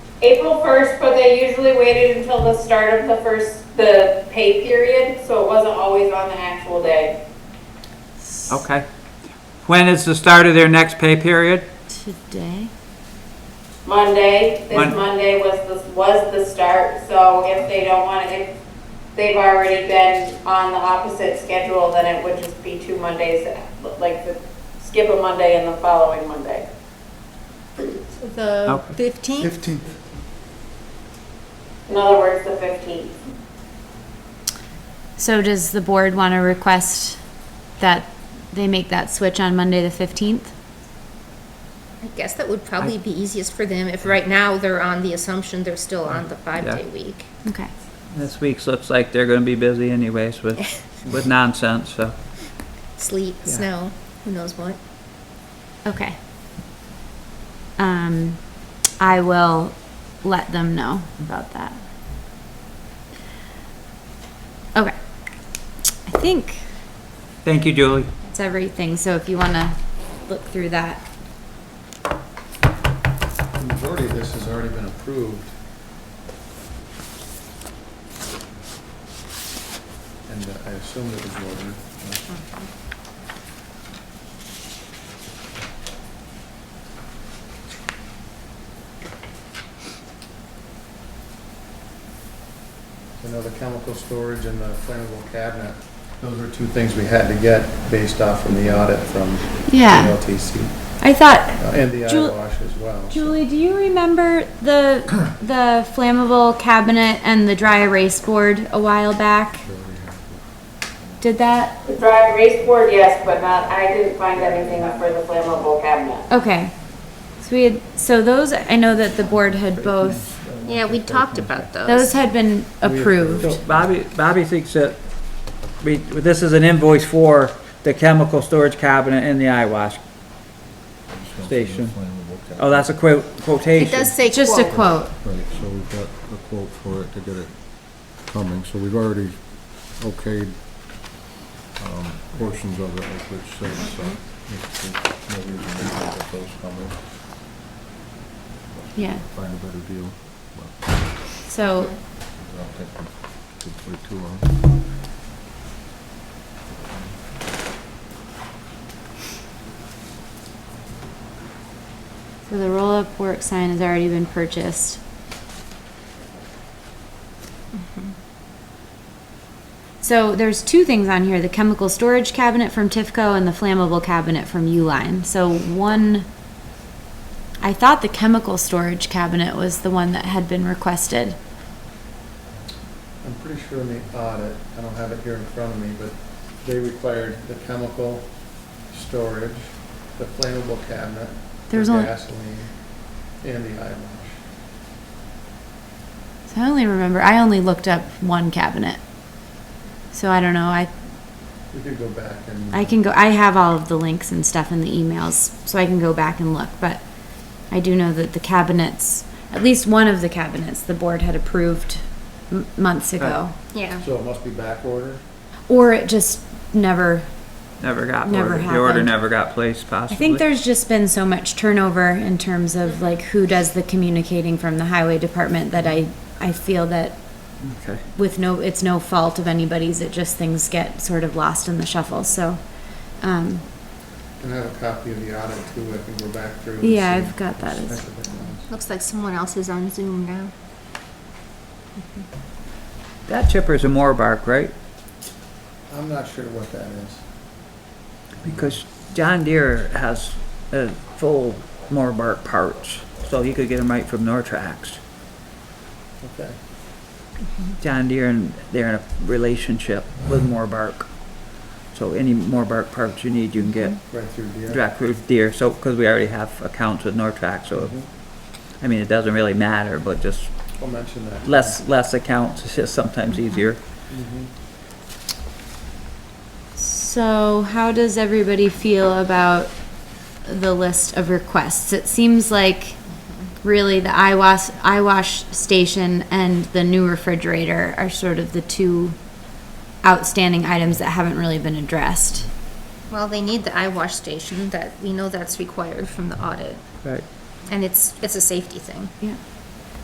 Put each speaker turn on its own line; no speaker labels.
April 1st, but they usually waited until the start of the first, the pay period, so it wasn't always on the actual day.
Okay. When is the start of their next pay period?
Today?
Monday,
Mon-
this Monday was the, was the start, so if they don't want to, if they've already been on the opposite schedule, then it would just be two Mondays, like the, skip a Monday and the following Monday.
The
Okay.
15th?
15th.
In other words, the 15th.
So does the board want to request that they make that switch on Monday, the 15th?
I guess that would probably be easiest for them if right now they're on the assumption they're still on the five-day week.
Okay.
This week's looks like they're gonna be busy anyways with, with nonsense, so.
Sleet, snow, who knows what.
Okay. Um, I will let them know about that. Okay. I think
Thank you, Julie.
that's everything, so if you want to look through that.
The majority of this has already been approved. And uh, I assume it was voted. I know the chemical storage and the flammable cabinet, those are two things we had to get based off from the audit from
Yeah,
LTC.
I thought,
Uh, And the
Ju-
eyewash as well. so-
Julie, do you remember the, the flammable cabinet and the dry erase board a while back? Did that,
The dry erase board, yes, but not, I didn't find anything for the flammable cabinet.
okay. So we had, so those, I know that the board had both,
Yeah, we talked about
those
those.
had been approved.
So Bobby, Bobby thinks that we, this is an invoice for the chemical storage cabinet and the eyewash station. Oh, that's a quote,
It
quotation.
does say
Just a
quote.
quote.
Right, so we've got a quote for it to get it coming, so we've already okayed, um, portions of it, like Rich said, so. there's- there's no reason to not get those coming,
Yeah,
find a better deal, but
so,
I don't think we could wait too long.
so the roll-up work sign has already been purchased. Mm-hmm. So there's two things on here, the chemical storage cabinet from Tifco and the flammable cabinet from Uline. So one, I thought the chemical storage cabinet was the one that had been requested.
I'm pretty sure in the audit, I don't have it here in front of me, but they required the chemical storage, the flammable cabinet, the
There's only-
gasoline, and the eyewash.
So I only remember, I only looked up one cabinet. So I don't know, I,
We could go back and.
I can go, I have all of the links and stuff in the emails, so I can go back and look, but I do know that the cabinets, at least one of the cabinets, the board had approved m- months ago.
Yeah.
So it must be back order?
Or it just never,
Never got,
Never
ordered. the order
happened.
never got placed possibly.
I think there's just been so much turnover in terms of like who does the communicating from the highway department that I, I feel that
Okay.
with no, it's no fault of anybody's, it just things get sort of lost in the shuffle, so, um,
And I have a copy of the audit too, I can go back through. and
yeah,
see
I've got that as,
specific ones.
Looks like someone else is on Zoom now.
That chipper's a Morbark, right?
I'm not sure what that is.
Because John Deere has uh, full Morbark parts, so you could get them right from Nortrax.
Okay.
John Deere and they're in a relationship with Morbark. So any Morbark parts you need, you can get
Right through here.
direct with Deere. So, because we already have accounts with Nortrax, so, I mean, it doesn't really matter, but just
I'll mention that.
less, less accounts is just sometimes easier.
Mhm.
So, how does everybody feel about the list of requests? It seems like really the eyewash, eyewash station and the new refrigerator are sort of the two outstanding items that haven't really been addressed.
Well, they need the eyewash station that, we know that's required from the audit.
Right.
And it's, it's a safety thing.
Yeah.